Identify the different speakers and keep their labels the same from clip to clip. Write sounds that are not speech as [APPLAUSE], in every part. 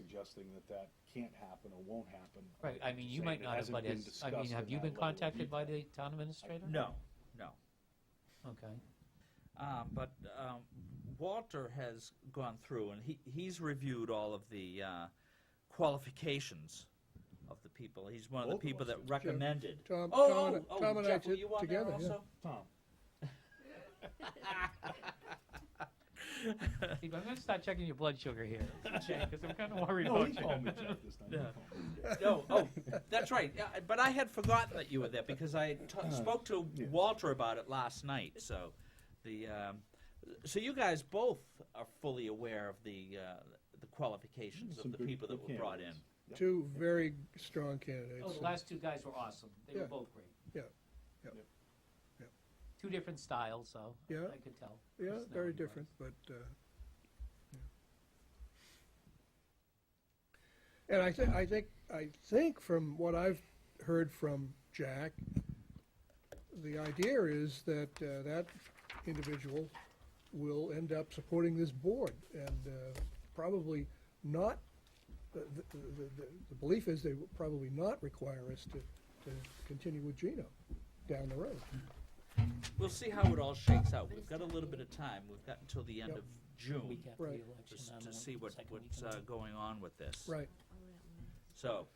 Speaker 1: suggesting that that can't happen or won't happen.
Speaker 2: Right, I mean, you
Speaker 1: Saying
Speaker 2: might
Speaker 1: it
Speaker 2: not have,
Speaker 1: hasn't
Speaker 2: but
Speaker 1: been
Speaker 2: as, I mean,
Speaker 1: discussed
Speaker 2: have
Speaker 1: in
Speaker 2: you
Speaker 1: that
Speaker 2: been
Speaker 1: level of
Speaker 2: contacted by
Speaker 1: detail.
Speaker 2: the town administrator?
Speaker 3: No, no.
Speaker 2: Okay,
Speaker 3: Uh, but um, Walter has gone through and he, he's reviewed all of the uh, qualifications of the people. He's one of the
Speaker 1: Both of
Speaker 3: people
Speaker 1: us
Speaker 3: that
Speaker 1: did.
Speaker 3: recommended.
Speaker 4: Tom,
Speaker 3: Oh,
Speaker 4: Tom,
Speaker 3: oh,
Speaker 4: and-
Speaker 3: oh,
Speaker 4: Tom and I
Speaker 3: Jeff, were
Speaker 4: did
Speaker 3: you on there
Speaker 4: together, yeah.
Speaker 3: also? [LAUGHS]
Speaker 1: Tom,
Speaker 2: Steve, I'm gonna start checking your blood
Speaker 1: [LAUGHS]
Speaker 2: sugar here, because I'm kinda worried
Speaker 1: no,
Speaker 2: about
Speaker 1: he called me
Speaker 2: you.
Speaker 1: Jeff this time. He
Speaker 3: Yeah.
Speaker 1: called me.
Speaker 3: No, oh, that's right. Yeah, but I had forgotten that you were there because I t-
Speaker 4: Uh-huh.
Speaker 3: spoke to
Speaker 1: Yes.
Speaker 3: Walter about it last night. So, the um, so you guys both are fully aware of the uh, the qualifications
Speaker 1: Some
Speaker 3: of the
Speaker 1: good-
Speaker 3: people that
Speaker 1: good
Speaker 3: were brought in.
Speaker 1: candidates. Yep.
Speaker 4: [LAUGHS] Two very strong
Speaker 2: [LAUGHS] Oh,
Speaker 4: candidates.
Speaker 2: the last two guys were awesome, they were
Speaker 4: Yeah.
Speaker 2: both great.
Speaker 4: Yeah. Yep. Yep.
Speaker 2: Two different styles, so,
Speaker 4: Yeah.
Speaker 2: I could tell.
Speaker 4: Yeah, very
Speaker 2: personality-wise.
Speaker 4: different, but, uh, yeah. And I think, I think, I think from what I've heard from Jack, the idea is that, uh, that individual will end up supporting this board and, uh, probably not, the, the, the, the belief is they will probably not require us to, to continue with Gino down the road.
Speaker 3: We'll see how it all shakes out. We've got a little bit of time. We've got until the end
Speaker 4: Yep.
Speaker 3: of June
Speaker 2: Week after the
Speaker 4: Right.
Speaker 3: to,
Speaker 2: election.
Speaker 3: s-
Speaker 2: I don't
Speaker 3: to
Speaker 2: know,
Speaker 3: see what
Speaker 2: second week
Speaker 3: what's
Speaker 2: in
Speaker 3: uh, going on with this.
Speaker 4: Right.
Speaker 3: So,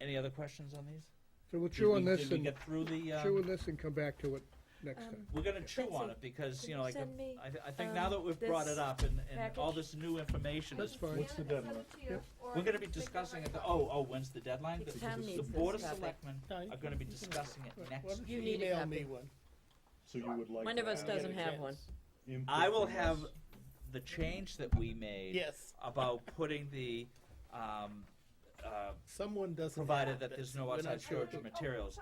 Speaker 3: any other questions on these?
Speaker 4: So we'll
Speaker 3: Did
Speaker 4: chew
Speaker 3: we-
Speaker 4: on this
Speaker 3: Did we
Speaker 4: and.
Speaker 3: get through the? um,
Speaker 4: chew on this and come back to it next
Speaker 5: Um,
Speaker 4: time.
Speaker 3: We're gonna chew
Speaker 5: That's
Speaker 3: on
Speaker 5: it.
Speaker 3: it because, you
Speaker 5: Can
Speaker 3: know,
Speaker 5: you
Speaker 3: like,
Speaker 5: send me,
Speaker 3: I, th- I think now that we've
Speaker 5: um,
Speaker 3: brought it
Speaker 5: this
Speaker 3: up and, and all
Speaker 5: package?
Speaker 3: this new information
Speaker 4: That's
Speaker 3: is,
Speaker 4: fine.
Speaker 1: What's the deadline?
Speaker 3: we're gonna be discussing it, the- oh, oh, when's the deadline?
Speaker 5: The
Speaker 3: The-
Speaker 5: town
Speaker 3: The
Speaker 5: needs
Speaker 3: Board of
Speaker 5: this topic.
Speaker 3: Selectmen are gonna be discussing it next.
Speaker 5: You need a
Speaker 6: Email
Speaker 5: copy.
Speaker 6: me one.
Speaker 1: So you would like.
Speaker 5: One
Speaker 1: to
Speaker 5: of us
Speaker 6: when I get a
Speaker 5: doesn't have one.
Speaker 6: chance.
Speaker 1: input
Speaker 3: I will
Speaker 1: from
Speaker 3: have
Speaker 1: us.
Speaker 3: the change that we made
Speaker 6: Yes,
Speaker 3: about putting the, um, uh,
Speaker 6: someone doesn't.
Speaker 3: provided
Speaker 6: have
Speaker 3: that
Speaker 6: it.
Speaker 3: there's no
Speaker 6: We're not
Speaker 3: outside
Speaker 6: sure.
Speaker 3: storage of materials,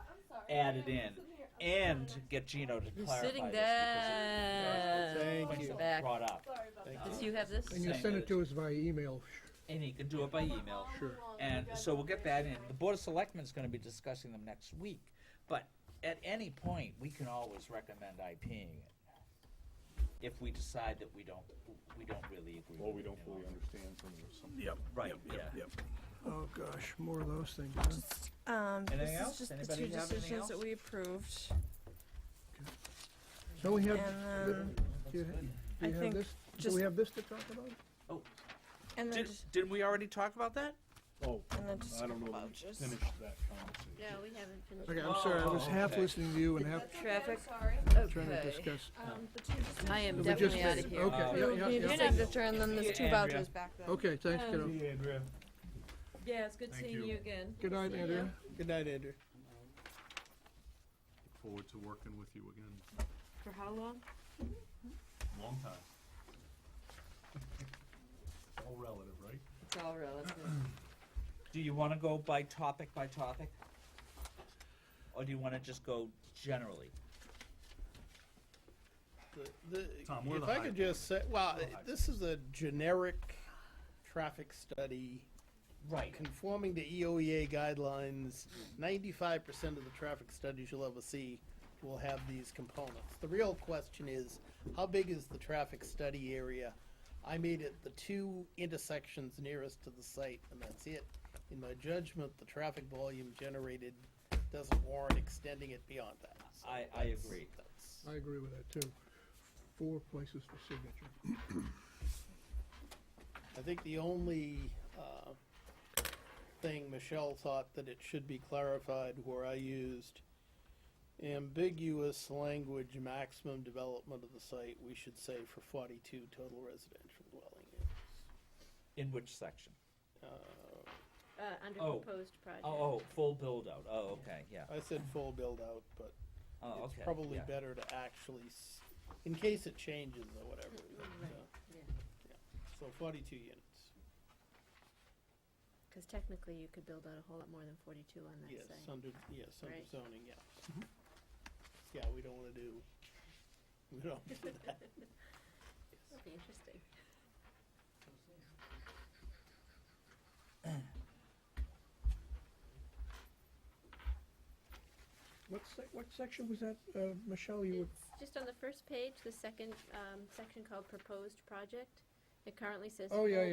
Speaker 3: added in, and get Gino to
Speaker 5: You're
Speaker 3: clarify this.
Speaker 5: sitting
Speaker 3: because
Speaker 5: there.
Speaker 6: Thank
Speaker 5: Watch
Speaker 6: you.
Speaker 5: your
Speaker 3: it was
Speaker 5: Back.
Speaker 3: Brought up,
Speaker 6: Thank
Speaker 5: Does you have this?
Speaker 4: And you
Speaker 3: Same
Speaker 4: send
Speaker 3: with
Speaker 4: it to us via email.
Speaker 3: and he can do it by email.
Speaker 4: Sure.
Speaker 3: And so we'll get that in. The Board of Selectmen's gonna be discussing them next week, but at any point, we can always recommend IPing it. If we decide that we don't, we don't really agree.
Speaker 1: Well, we
Speaker 3: with
Speaker 1: don't
Speaker 3: it.
Speaker 1: fully understand something or something.
Speaker 3: Right, yeah.
Speaker 4: Oh, gosh, more of those things, huh?
Speaker 7: Um, this
Speaker 3: Anything
Speaker 7: is
Speaker 3: else?
Speaker 7: just the
Speaker 3: Anybody
Speaker 7: two
Speaker 3: have anything
Speaker 7: decisions that
Speaker 3: else?
Speaker 7: we approved.
Speaker 4: So we have,
Speaker 7: And then-
Speaker 4: do you ha- do
Speaker 7: I
Speaker 4: you have
Speaker 7: think
Speaker 4: this, do
Speaker 7: just-
Speaker 4: we have this to talk about?
Speaker 7: And then,
Speaker 3: Did,
Speaker 7: just-
Speaker 3: didn't we already talk about that?
Speaker 1: Oh,
Speaker 7: and then just
Speaker 1: I don't know that we
Speaker 7: vouchers.
Speaker 1: finished that conversation.
Speaker 5: No, we haven't finished.
Speaker 4: Okay, I'm sorry, I was half
Speaker 3: okay.
Speaker 4: listening to you and half
Speaker 7: Traffic.
Speaker 4: trying to
Speaker 7: Okay.
Speaker 4: discuss.
Speaker 8: Um, the two decisions.
Speaker 5: I am
Speaker 4: We just
Speaker 5: definitely out of
Speaker 4: made-
Speaker 5: here.
Speaker 3: Uh,
Speaker 4: Okay, yeah, yeah,
Speaker 7: You're
Speaker 4: yeah. Oh.
Speaker 7: not gonna turn them, there's two
Speaker 3: Yeah, Andrea.
Speaker 7: vouchers back then.
Speaker 4: Okay, thanks,
Speaker 8: Um,
Speaker 4: kiddo.
Speaker 1: Hey, Andrea.
Speaker 8: Yeah, it's good
Speaker 1: Thank
Speaker 8: seeing
Speaker 1: you.
Speaker 8: you again.
Speaker 4: Good night, Andrea.
Speaker 6: Good night, Andrew.
Speaker 9: Look forward to working with you again.
Speaker 5: For how long?
Speaker 9: Long time. It's all relative, right?
Speaker 5: It's all relative.
Speaker 3: Do you wanna go by topic by topic? Or do you wanna just go generally?
Speaker 6: The- the-
Speaker 9: Tom, we're
Speaker 6: If
Speaker 9: the
Speaker 6: I could
Speaker 9: hive.
Speaker 6: just say, well,
Speaker 9: We're the hive.
Speaker 6: this is a generic traffic study
Speaker 3: Right.
Speaker 6: conforming to E EOEA guidelines. Ninety-five percent of the traffic studies you'll ever see will have these components. The real question is, how big is the traffic study area? I made it the two intersections nearest to the site, and that's it. In my judgment, the traffic volume generated doesn't warrant extending it beyond that. So
Speaker 3: I- I
Speaker 6: that's-
Speaker 3: agree.
Speaker 6: that's-
Speaker 4: I agree with that, too. Four places for signature.
Speaker 6: I think the only uh, thing Michelle thought that it should be clarified where I used ambiguous language maximum development of the site, we should say for forty-two total residential dwelling. units.
Speaker 3: In which section?
Speaker 6: Uh,
Speaker 8: Uh, under
Speaker 3: Oh.
Speaker 8: proposed project.
Speaker 3: Oh, oh, full build out, oh, okay, yeah,
Speaker 6: I said full build-out, but
Speaker 3: oh, okay.
Speaker 6: it's probably
Speaker 3: yeah.
Speaker 6: better to actually, s- in case it changes or whatever.
Speaker 8: right,
Speaker 6: so-
Speaker 8: yeah.
Speaker 6: yeah. So forty-two units.
Speaker 8: Because technically, you could build out a whole lot more than forty-two on that
Speaker 6: Yes,
Speaker 8: site.
Speaker 6: under, yes, under
Speaker 8: Right.
Speaker 6: zoning, yeah. Yeah, we don't wanna do, we don't,
Speaker 8: That'd be interesting.
Speaker 4: What sec, what section was that, uh, Michelle, you were?
Speaker 8: It's just on the first page, the second um, section called proposed project. It currently says.
Speaker 4: Oh, yeah,
Speaker 8: full